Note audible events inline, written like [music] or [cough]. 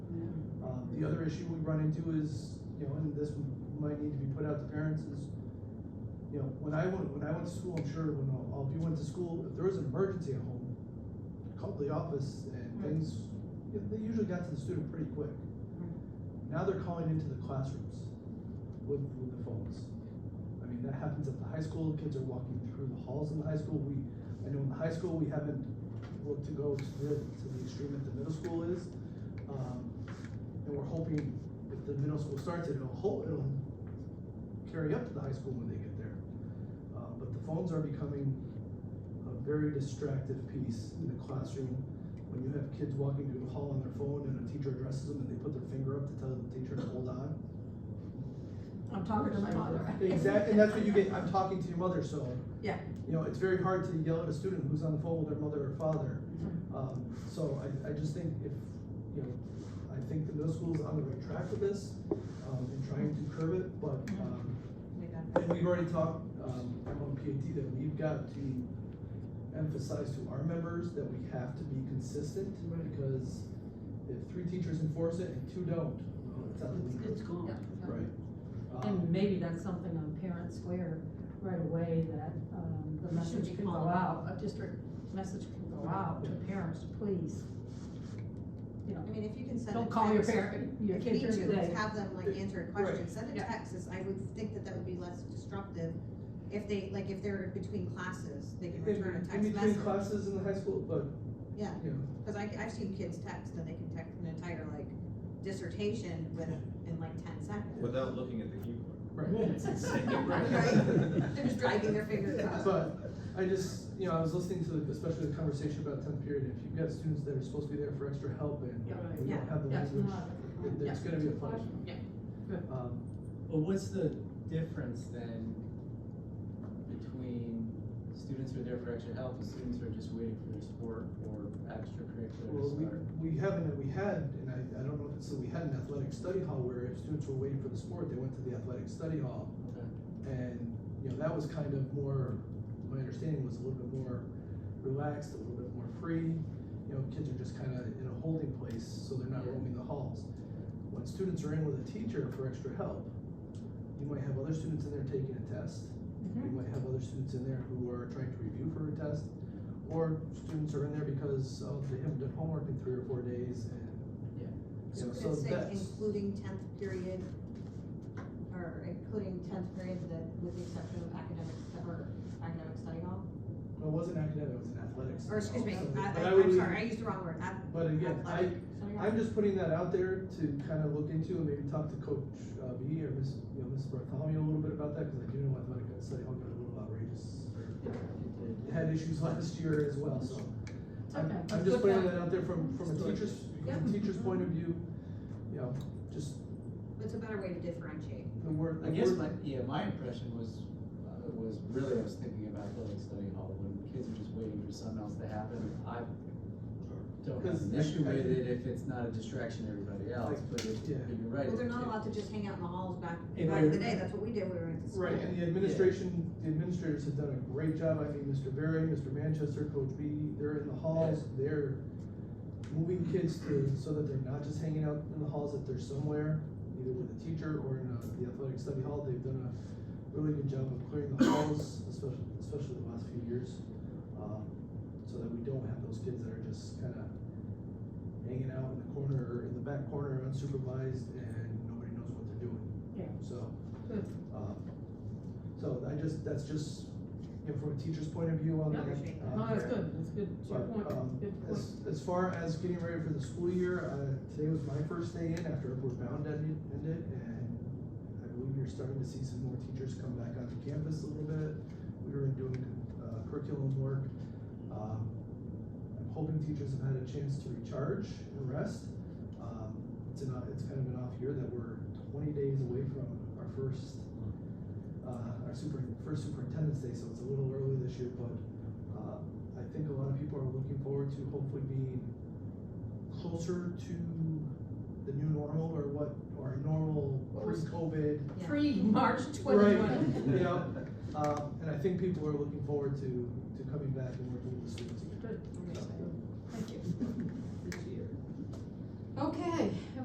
Um, the other issue we run into is, you know, and this might need to be put out to parents is, you know, when I went, when I went to school, I'm sure when all all of you went to school, if there was an emergency at home, call the office and Right. things, you know, they usually got to the student pretty quick. Now they're calling into the classrooms with, with the phones. I mean, that happens at the high school, kids are walking through the halls in the high school, we, I know in the high school, we haven't looked to go to the, to the extreme that the middle school is. Um, and we're hoping if the middle school starts, it, it'll hold, it'll carry up to the high school when they get there. Uh, but the phones are becoming a very distractive piece in the classroom. When you have kids walking through the hall on their phone and a teacher addresses them and they put their finger up to tell the teacher to hold on. I'm talking to my mother. Exactly, and that's what you get, [laughs] I'm talking to your mother, so. Yeah. You know, it's very hard to yell at a student who's on the phone with their mother or father. Um, so I, I just think if, you know, I think the middle school's on the right track with this, um, and trying to curb it, but, um, We got that. and we've already talked, um, among PAT that we've got to emphasize to our members that we have to be consistent, because if three teachers enforce it and two don't, well, it's out the It's, window. it's gone. Right. Um, And maybe that's something on Parent Square right away, that, um, the Should message be can go called out, out. a district message can go out to parents, please. You I know, mean, if you can send a text. don't call your parent, your If you need kid during to, the day. just have them like answer a question, Right. send a Yeah. text, is- I would think that that would be less disruptive. If they, like, if they're between classes, they can In- return a In text between message. classes in the high school, but, Yeah, you know, cause I, I've seen kids text and they can text an entire like dissertation with, in like ten seconds. Without looking at the keyboard. right. [laughs] It's insane. Right. They're just dragging their fingers across. But I just, you know, I was listening to the- especially the conversation about tenth period, if you've got students that are supposed to be there for extra help and Yeah. we Yeah. don't have the Yeah. language, it- it's gonna be a punishment. Yeah. Um, But what's the difference then between students who are there for extra help and students who are just waiting for their sport or Well, extracurriculars we, or? we haven't, we had, and I, I don't know if it's, so we had an athletic study hall where if students were waiting for the sport, they went to the athletic study hall. Okay. And, you know, that was kind of more, my understanding was a little bit more relaxed, a little bit more free. You know, kids are just kind of in a holding place, so they're not roaming the halls. When students are in with a teacher for extra help, you might have other students in there taking a test. You might have other students in there who are trying to review for a test. Or students are in there because, oh, they haven't done homework in three or four days and. Yeah. You So know, could so it say that's, including tenth period, or including tenth period that, with the exception of academic, stu- or academic study hall? well, it wasn't academic, it was an athletics. Or excuse me, So- I, but I, would am leave- sorry, I used the wrong word, ath- But again, I, athletic study hall? I'm just putting that out there to kind of look into and maybe talk to Coach uh, B or Miss, you know, Miss Bartholomew a little bit about that, because I do know athletic study hall got a little outrageous. or Yeah, it did. [laughs] Had issues last year as well, so. It's I'm, okay. I'm Good just putting point. that out there from, from a teacher's, from a Yeah. teacher's point of view, you know, just It's a better way to differentiate. the word. I the guess word- my, yeah, my impression was, uh, was really, I was thinking about athletic study hall, when kids are just waiting for something else to happen, I don't have an Because- issue with it if it's not a distraction to everybody else, but it, Yeah. but you're right. Well, they're not it- allowed to just hang out in the halls back, If back in I- the day, that's what we did, when we were in school. Right, and the administration, the administrators have done a great job, I mean, Mr. Berry, Mr. Manchester, Coach B, they're in the halls, they're moving kids to, so that they're not just hanging out in the halls, that they're somewhere, either with a teacher or in uh, the athletic study hall, they've done a really good job of clearing the halls, especially, especially the last few years. um, So that we don't have those kids that are just kinda hanging out in the corner, or in the back corner unsupervised, and nobody knows what they're doing. Yeah. So. Good. Um, So I just, that's just, you know, from a teacher's point of view on Yeah, that. appreciate that. um, No, that's good, that's good, it's your but, um, point, good point. As, as far as getting ready for the school year, uh, today was my first day in after Upward Bound ended, ended, and I believe you're starting to see some more teachers come back onto campus a little bit. We were doing, uh, curriculum work. Um, I'm hoping teachers have had a chance to recharge and rest. Um, it's an, it's kind of an off year that we're twenty days away from our first, uh, our super, first superintendent's day, so it's a little early this year, but, uh, I think a lot of people are looking forward to hopefully being closer to the new normal or what, or normal What was- pre-COVID. Yeah. Pre-March Right, [laughs] twenty-one. you know, [laughs] um, and I think people are looking forward to, to coming back and working with the students again. [laughs] Good, Okay. thank you. Okay,